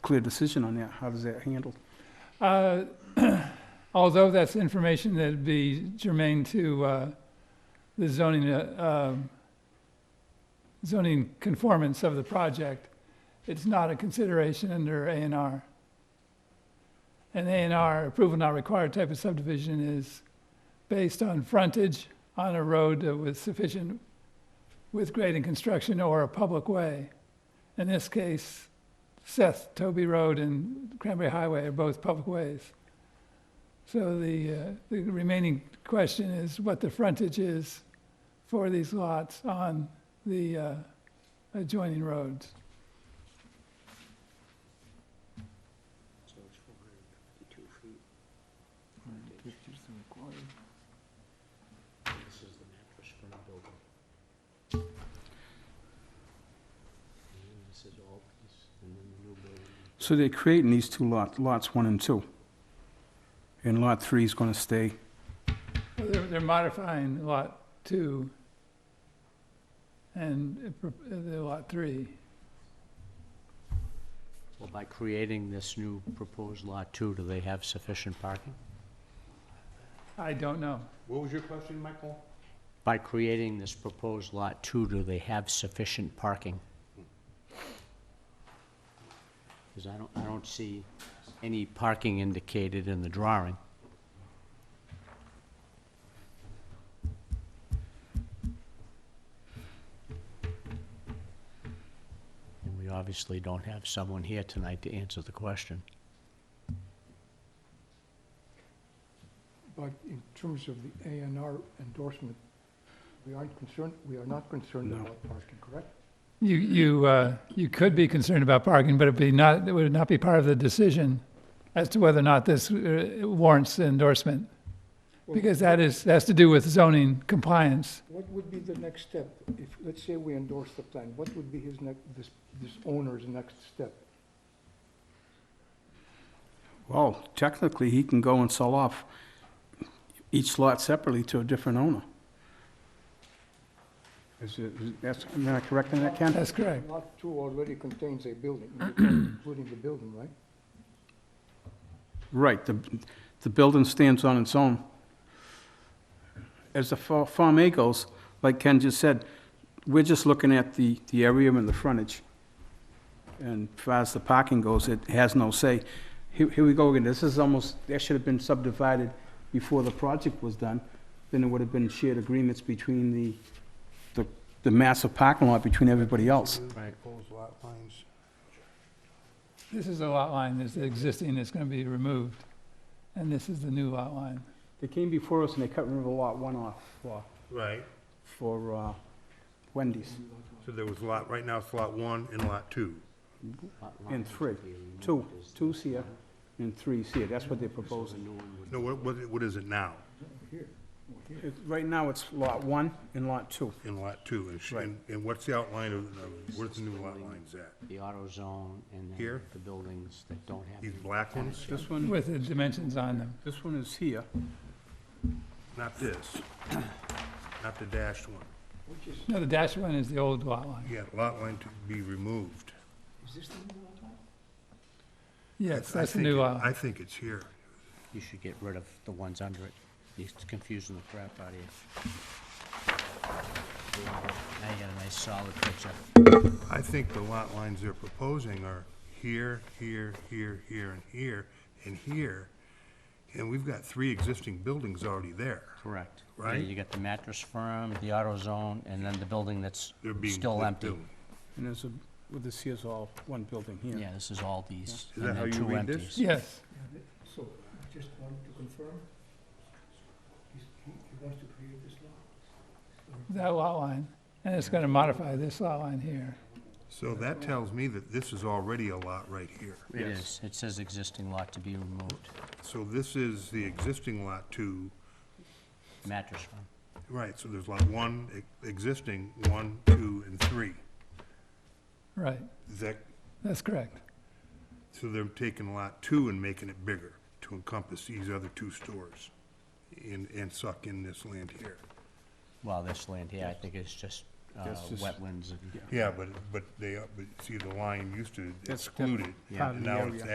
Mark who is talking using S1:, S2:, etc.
S1: clear decision on that. How does that handle?
S2: Uh, Although that's information that'd be germane to uh, the zoning, uh, um, zoning conformance of the project, it's not a consideration under A and R. An A and R approval not required type of subdivision is based on frontage on a road that was sufficient with grade and construction or a public way. In this case, Seth, Toby Road and Cranberry Highway are both public ways. So the, uh, the remaining question is what the frontage is for these lots on the uh, adjoining roads.
S3: So it's four hundred and fifty-two feet. This is the mattress for the building. And then this is all this, and then the new building.
S1: So they're creating these two lots, lots one and two. And lot three is gonna stay.
S2: Well, They're, they're modifying lot two and uh, pro- uh, the lot three.
S3: Well, by creating this new proposed lot two, do they have sufficient parking?
S2: I don't know.
S4: What was your question, Michael?
S3: By creating this proposed lot two, do they have sufficient parking? Because I don't, I don't see any parking indicated in the drawing. And we obviously don't have someone here tonight to answer the question.
S5: But in terms of the A and R endorsement, we aren't concerned, we are not concerned
S1: No.
S5: about parking, correct?
S2: You, you, uh, you could be concerned about parking, but it'd be not, it would not be part of the decision as to whether or not this uh, warrants endorsement.
S5: Well,
S2: Because that is, that's to do with zoning compliance.
S5: What would be the next step? If, let's say we endorse the plan, what would be his next, this, this owner's next step?
S1: Well, technically, he can go and sell off each lot separately to a different owner. Is it, is that's, am I correct in that, Ken?
S2: That's correct.
S5: Lot two already contains a building, including the building, right?
S1: Right, the, the building stands on its own. As the Fa- Farm A goes, like Ken just said, we're just looking at the, the area and the frontage. And as far as the parking goes, it has no say. Here, here we go again, this is almost, that should have been subdivided before the project was done. Then it would have been shared agreements between the, the, the massive parking lot between everybody else.
S3: Right.
S2: This is a lot line that's existing, that's gonna be removed, and this is the new lot line.
S1: They came before us and they cut River Lot One off for,
S4: Right,
S1: for uh, Wendy's.
S4: so there was lot, right now it's lot one and lot two.
S1: And three. Two, two's here and three's here, that's what they're proposing.
S4: No, what, what, what is it now
S1: It- Right now, it's lot one and lot two.
S4: in lot two? And sh-
S1: Right.
S4: And, and what's the outline of, of, where's the new lot lines at?
S3: The auto zone and then
S4: Here?
S3: the buildings that don't have.
S4: These black ones?
S1: This one,
S2: With the dimensions on them.
S1: this one is here.
S4: Not this, not the dashed one.
S5: Which is,
S2: No, the dashed one is the old lot line.
S4: Yeah, lot line to be removed.
S5: is this the new lot line?
S2: Yes,
S4: I
S2: that's the
S4: think
S2: new
S4: it-
S2: lot. line.
S4: I think it's here.
S3: You should get rid of the ones under it. It's confusing the crap out of you. Now you got a nice solid picture.
S4: I think the lot lines they're proposing are here, here, here, here, and here, and here. And we've got three existing buildings already there.
S3: Correct. Yeah,
S4: Right.
S3: You got the mattress firm, the auto zone, and then the building that's
S4: They're being.
S3: still
S4: they're
S3: empty.
S4: doing.
S1: And there's a, well, this here's all one building here.
S3: Yeah, this is all these.
S4: that
S3: and
S4: how
S3: then
S4: you
S3: two
S4: read this?
S3: empties.
S2: Yes,
S5: So, I just want to confirm, he's, he he wants to create this lot?
S2: that lot line, and it's gonna modify this lot line here.
S4: So that tells me that this is already a lot right here.
S3: It is. It says existing lot to be removed,
S4: So this is the existing lot two,
S3: mattress firm.
S4: right, so there's lot one, e- existing, one, two, and three.
S2: Right,
S4: Is that,
S2: that's correct.
S4: so they're taking lot two and making it bigger to encompass these other two stores and, and suck in this land here.
S3: Well, this land here, I think is just uh,
S1: That's just-
S3: wetlands and.
S4: Yeah, but, but they, but see, the line used to
S1: That's
S4: exclude it,
S1: part of
S4: and
S1: the
S4: now
S1: area.
S4: it's